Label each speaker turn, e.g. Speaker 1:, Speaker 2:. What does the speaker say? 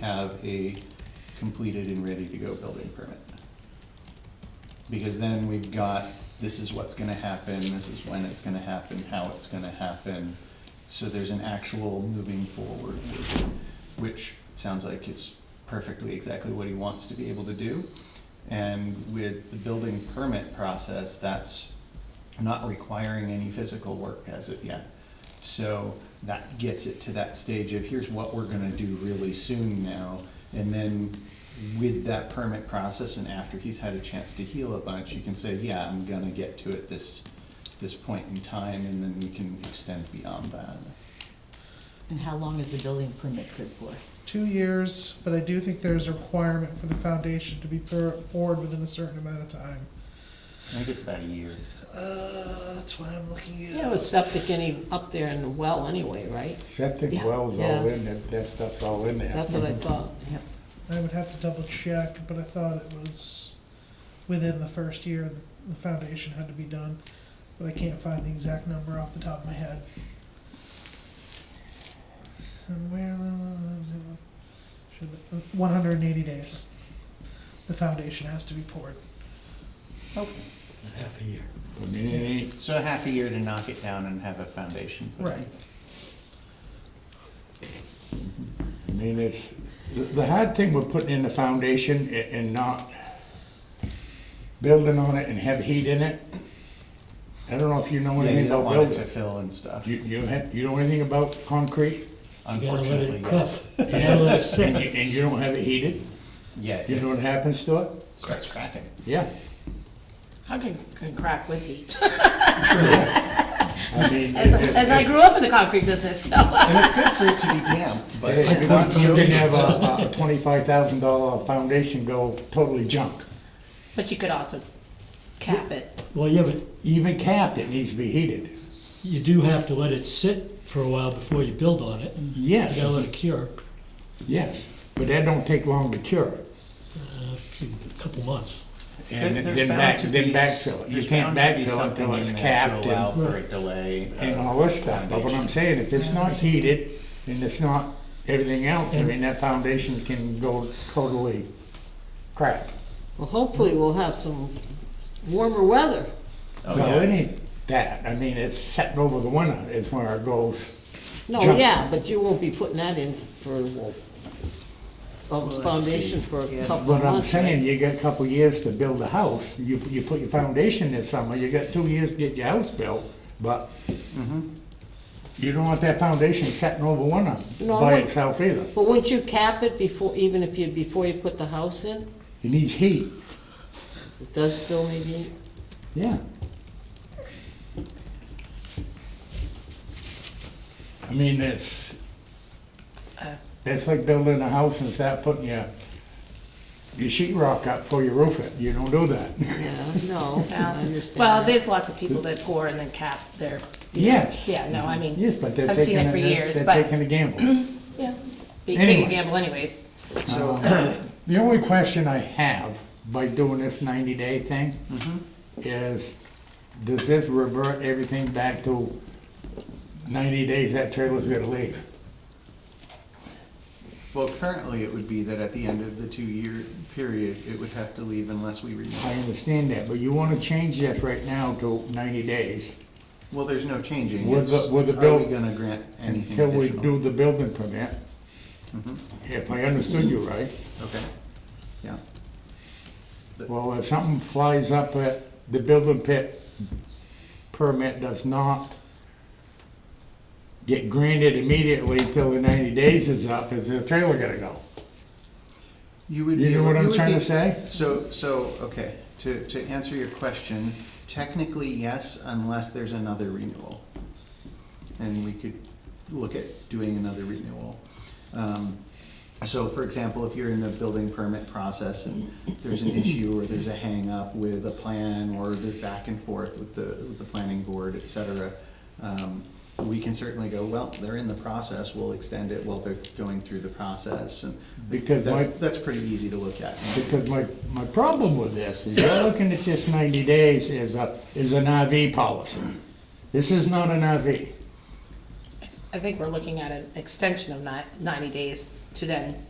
Speaker 1: have a completed and ready-to-go building permit. Because then we've got, this is what's gonna happen, this is when it's gonna happen, how it's gonna happen. So there's an actual moving forward, which, which sounds like is perfectly exactly what he wants to be able to do. And with the building permit process, that's not requiring any physical work as of yet. So that gets it to that stage of here's what we're gonna do really soon now. And then with that permit process and after he's had a chance to heal a bunch, you can say, yeah, I'm gonna get to it this, this point in time, and then we can extend beyond that.
Speaker 2: And how long is the building permit good for?
Speaker 3: two years, but I do think there's a requirement for the foundation to be pour- poured within a certain amount of time.
Speaker 1: I think it's about a year.
Speaker 3: Uh, that's why I'm looking
Speaker 4: Yeah, with septic any, up there in the well anyway, right?
Speaker 5: Septic
Speaker 2: Yeah.
Speaker 5: wells all
Speaker 4: Yes.
Speaker 5: in, that, that stuff's all in there.
Speaker 4: That's what I thought.
Speaker 3: I would have to double check, but I thought it was within the first year the foundation had to be done, but I can't find the exact number off the top of my head. And where, uh, one hundred and eighty days. The foundation has to be poured.
Speaker 5: Half a year. I mean,
Speaker 1: So half a year to knock it down and have a foundation put in.
Speaker 3: Right.
Speaker 5: I mean, it's, the- the hard thing with putting in the foundation a- and not building on it and have heat in it, I don't know if you know
Speaker 1: Yeah,
Speaker 5: anything
Speaker 1: you don't
Speaker 5: about
Speaker 1: want it to
Speaker 5: building.
Speaker 1: fill and stuff,
Speaker 5: You, you have, you know anything about concrete?
Speaker 1: unfortunately, yes.
Speaker 5: And you- and you don't have it heated,
Speaker 1: Yeah,
Speaker 5: you know
Speaker 1: it
Speaker 5: what happens to it?
Speaker 1: starts cracking.
Speaker 5: Yeah.
Speaker 6: I can, can crack with heat.
Speaker 5: I mean,
Speaker 6: As,
Speaker 5: it-
Speaker 6: as I
Speaker 5: it's-
Speaker 6: grew up in the concrete business, so.
Speaker 1: And it's good for it to be damp, but
Speaker 5: Hey, You
Speaker 1: not so
Speaker 5: can have a- a twenty-five thousand dollar foundation go totally junk.
Speaker 6: But you could also cap it.
Speaker 7: Well, yeah, but
Speaker 5: Even capped, it needs to be heated.
Speaker 7: you do have to let it sit for a while before you build on it. You
Speaker 5: Yes,
Speaker 7: gotta let it cure,
Speaker 5: yes, but that don't take long to cure.
Speaker 7: uh, a few, a couple months.
Speaker 5: And
Speaker 1: There- there's
Speaker 5: then
Speaker 1: bound
Speaker 5: back,
Speaker 1: to
Speaker 5: then
Speaker 1: be s-
Speaker 5: backfill it. You
Speaker 1: there's
Speaker 5: can't
Speaker 1: bound to be
Speaker 5: backfill it
Speaker 1: something
Speaker 5: until
Speaker 1: in
Speaker 5: it's
Speaker 1: there to
Speaker 5: capped
Speaker 1: Allow
Speaker 5: and,
Speaker 1: for a delay.
Speaker 5: and
Speaker 1: of
Speaker 5: all this stuff. But what I'm
Speaker 1: foundation.
Speaker 5: saying, if it's not heated and it's not everything else, I mean, that foundation can go totally crap.
Speaker 4: Well, hopefully we'll have some warmer weather.
Speaker 1: Oh,
Speaker 5: Well,
Speaker 1: yeah.
Speaker 5: it ain't that. I mean, it's setting over the winter is where it goes.
Speaker 4: No,
Speaker 5: Junk.
Speaker 4: yeah, but you won't be putting that in for, well, um, foundation for a couple of
Speaker 5: But I'm
Speaker 4: months. right?
Speaker 5: saying, you got a couple years to build a house, you, you put your foundation this summer, you got two years to get your house built, but you don't want that foundation setting over winter
Speaker 4: No, I
Speaker 5: by
Speaker 4: want-
Speaker 5: itself either.
Speaker 4: But wouldn't you cap it before, even if you, before you put the house in?
Speaker 5: It needs heat,
Speaker 4: It does still need heat?
Speaker 5: yeah. I mean, it's,
Speaker 4: Uh.
Speaker 5: that's like building a house and start putting your, your sheet rock up before you roof it, you don't do that.
Speaker 4: Yeah, no, I understand.
Speaker 6: Well,
Speaker 4: that.
Speaker 6: there's lots of people that pour and then cap their,
Speaker 5: Yes.
Speaker 6: yeah, no, I mean,
Speaker 5: Yes, but they're
Speaker 6: I've seen
Speaker 5: taking,
Speaker 6: it
Speaker 5: a-
Speaker 6: for
Speaker 5: they're
Speaker 6: years,
Speaker 5: they're
Speaker 6: but-
Speaker 5: taking a gamble.
Speaker 6: yeah. But you take
Speaker 5: Anyway.
Speaker 6: a gamble anyways.
Speaker 5: The only question I have by doing this ninety day thing
Speaker 6: Mm-hmm.
Speaker 5: is, does this revert everything back to ninety days that trailer's gonna leave?
Speaker 1: Well, currently, it would be that at the end of the two-year period, it would have to leave unless we
Speaker 5: I
Speaker 1: renew.
Speaker 5: understand that, but you wanna change this right now to ninety days
Speaker 1: Well, there's no changing.
Speaker 5: With the-
Speaker 1: It's,
Speaker 5: with the
Speaker 1: Are we
Speaker 5: bill-
Speaker 1: gonna grant anything
Speaker 5: until we
Speaker 1: additional?
Speaker 5: do
Speaker 1: Mm-hmm.
Speaker 5: the building permit. If I understood you right.
Speaker 1: Okay, yeah.
Speaker 5: Well, if something flies up at, the building pit permit does not get granted immediately until the ninety days is up, is the trailer gonna go?
Speaker 1: You would be.
Speaker 5: You know what
Speaker 1: you
Speaker 5: I'm
Speaker 1: would
Speaker 5: trying
Speaker 1: be-
Speaker 5: to say?
Speaker 1: So, so, okay, to, to answer your question, technically, yes, unless there's another renewal. And we could look at doing another renewal. Um, So for example, if you're in the building permit process and there's an issue or there's a hang-up with a plan or there's back and forth with the, with the planning board, et cetera, um, we can certainly go, well, they're in the process, we'll extend it while they're going through the process and
Speaker 5: Because
Speaker 1: that's,
Speaker 5: my-
Speaker 1: that's pretty easy to look at.
Speaker 5: Because my, my problem with this is you're looking at this ninety days as a, is an RV policy. This is not an RV.
Speaker 6: I think we're looking at an extension of ni- ninety days to then